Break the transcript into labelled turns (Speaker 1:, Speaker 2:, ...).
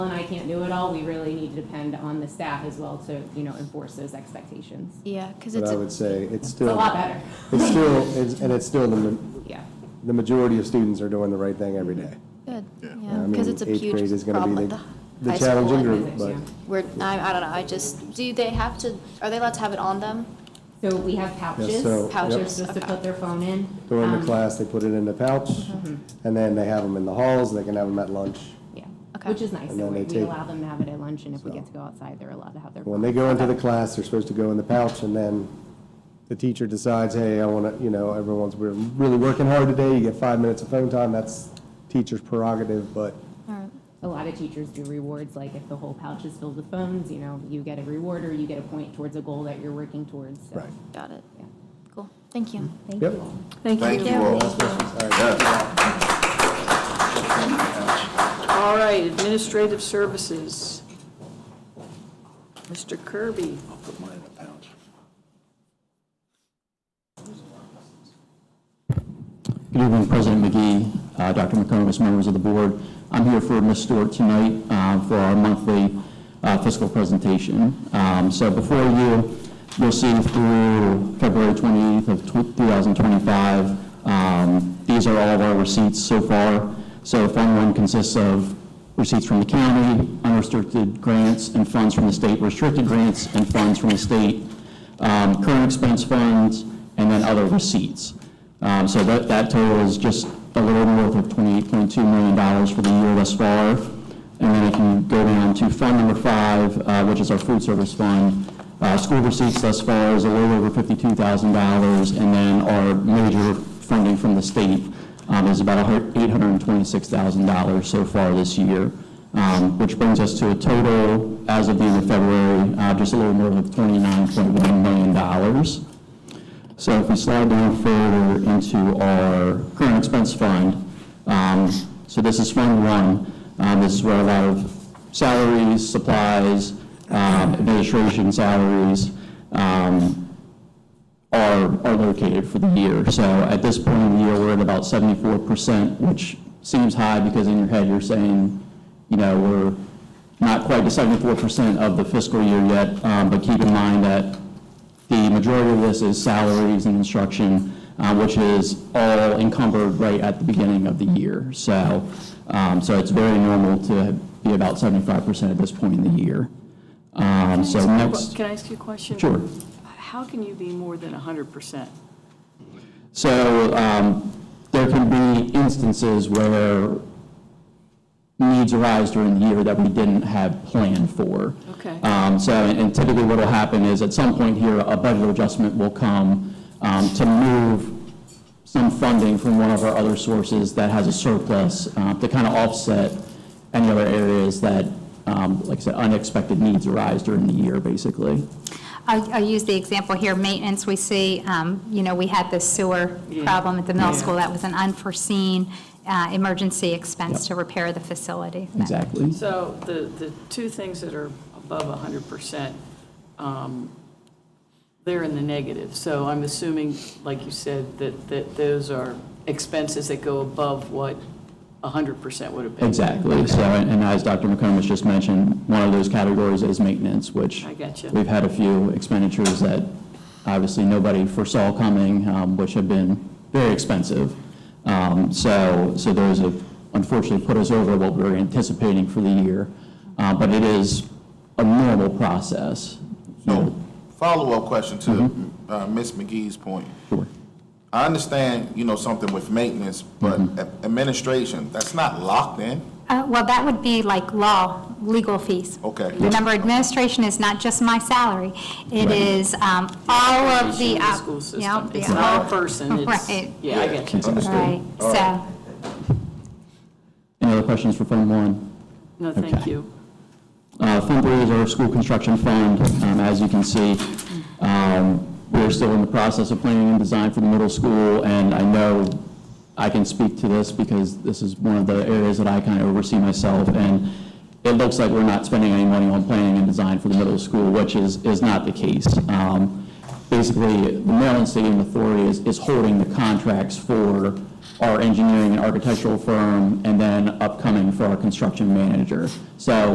Speaker 1: and I can't do it all, we really need to depend on the staff as well to, you know, enforce those expectations.
Speaker 2: Yeah, because
Speaker 3: But
Speaker 2: it's,
Speaker 3: I
Speaker 2: a-
Speaker 3: would say it's
Speaker 1: It's a
Speaker 3: still,
Speaker 1: lot better,
Speaker 3: it's still, it's- and it's still, the ma-
Speaker 1: yeah.
Speaker 3: the majority of students are doing the right thing every day.
Speaker 2: good, yeah,
Speaker 3: I
Speaker 2: because
Speaker 3: mean,
Speaker 2: it's a
Speaker 3: eighth
Speaker 2: huge
Speaker 3: grade is gonna be
Speaker 2: problem at the
Speaker 3: the-
Speaker 2: high school.
Speaker 3: the challenging
Speaker 2: and
Speaker 3: group, but
Speaker 1: Yeah.
Speaker 2: We're, I, I don't know, I just, do they have to, are they allowed to have it on them?
Speaker 1: So we have pouches,
Speaker 3: so- yep.
Speaker 1: pouches, just to
Speaker 2: Okay.
Speaker 1: put their phone in.
Speaker 3: go into
Speaker 1: Um,
Speaker 3: class, they put it in the pouch, and then they have them in the halls, they can have them at lunch.
Speaker 1: Yeah,
Speaker 2: Okay.
Speaker 1: which is nice, so
Speaker 3: And then
Speaker 1: we
Speaker 3: they
Speaker 1: we
Speaker 3: take-
Speaker 1: allow them to have it at lunch, and if we
Speaker 3: So-
Speaker 1: get to go outside, they're allowed to have their.
Speaker 3: When
Speaker 1: phone.
Speaker 3: they go into the class, they're supposed to go in the pouch, and then the teacher decides, hey, I want to, you know, everyone's, we're really working hard today, you get five minutes of phone time, that's teacher's prerogative, but
Speaker 2: All right,
Speaker 1: A lot of teachers do rewards, like if the whole pouch is filled with phones, you know, you get a reward or you get a point towards a goal that you're working towards, so.
Speaker 3: Right.
Speaker 2: got it,
Speaker 1: Yeah.
Speaker 2: cool, thank you.
Speaker 1: Thank
Speaker 3: Yep.
Speaker 1: you all.
Speaker 4: Thank you all.
Speaker 5: All right, administrative services. Mr. Kirby.
Speaker 4: I'll put mine in a pouch.
Speaker 6: Good evening, President McGee, uh, Dr. McComas, members of the board. I'm here for Ms. Stewart tonight uh, for our monthly uh, fiscal presentation. Um, So before you, you'll see through February 28th of tw- 2025, um, these are all of our receipts so far. So Fund 1 consists of receipts from the county, unrestricted grants, and funds from the state, restricted grants, and funds from the state um, current expense funds, and then other receipts. Um, So that, that total is just a little north of $28.2 million for the year thus far. And then if you go down to fund number five, uh, which is our food service fund, uh, school receipts thus far is a little over $52,000, and then our major funding from the state um, is about a hun- $826,000 so far this year, um, which brings us to a total, as of the end of February, uh, just a little more than $29.1 million. So if we slide down further into our current expense fund, um, so this is Fund One. Um, This is where a lot of salaries, supplies, um, administration salaries, um, are, are located for the year. So at this point in the year, we're at about seventy-four percent, which seems high because in your head, you're saying, you know, we're not quite to seventy-four percent of the fiscal year yet, um, but keep in mind that the majority of this is salaries and instruction, uh, which is all encumbered right at the beginning of the year. So, um, so it's very normal to be about seventy-five percent at this point in the year. Um, so next.
Speaker 5: Can I ask you a question?
Speaker 6: Sure.
Speaker 5: How can you be more than 100%?
Speaker 6: So um, there can be instances where needs arise during the year that we didn't have planned for.
Speaker 5: Okay.
Speaker 6: Um, So, and typically what will happen is at some point here, a budget adjustment will come um, to move some funding from one of our other sources that has a surplus uh, to kind of offset any other areas that, um, like I said, unexpected needs arise during the year, basically.
Speaker 7: I'll, I'll use the example here, maintenance, we see, um, you know, we had the sewer problem at the middle school, that was an unforeseen, uh, emergency expense to repair the facility.
Speaker 6: Exactly.
Speaker 5: So the, the two things that are above 100%, um, they're in the negative. So I'm assuming, like you said, that, that those are expenses that go above what 100% would have been.
Speaker 6: Exactly, so, and and as Dr. McComish just mentioned, one of those categories is maintenance, which.
Speaker 5: I gotcha.
Speaker 6: We've had a few expenditures that obviously nobody foresaw coming, um, which have been very expensive. Um, So, so those have unfortunately put us over what we were anticipating for the year, Uh, but it is a normal process.
Speaker 4: So, follow-up question to uh, Ms. McGee's point.
Speaker 6: Sure.
Speaker 4: I understand, you know, something with maintenance, but a- administration, that's not locked in?
Speaker 7: Uh, well, that would be like law, legal fees.
Speaker 4: Okay.
Speaker 7: Remember, administration is not just my salary, it
Speaker 6: Right.
Speaker 7: is, um, all of the.
Speaker 5: Issue with
Speaker 7: op-
Speaker 5: school
Speaker 7: yeah,
Speaker 5: system. It's
Speaker 7: yeah.
Speaker 5: not a person, it's,
Speaker 7: Right.
Speaker 5: yeah, I get you.
Speaker 4: Understood.
Speaker 7: Right,
Speaker 4: All
Speaker 7: so,
Speaker 6: Any other questions for Fund One?
Speaker 5: No, thank
Speaker 6: Okay.
Speaker 5: you.
Speaker 6: Uh, Fund three is our school construction fund. Um, As you can see, um, we're still in the process of planning and design for the middle school, and I know I can speak to this because this is one of the areas that I kind of oversee myself, and it looks like we're not spending any money on planning and design for the middle school, which is, is not the case. Um, Basically, the Maryland Stadium Authority is, is holding the contracts for our engineering and architectural firm, and then upcoming for our construction manager. So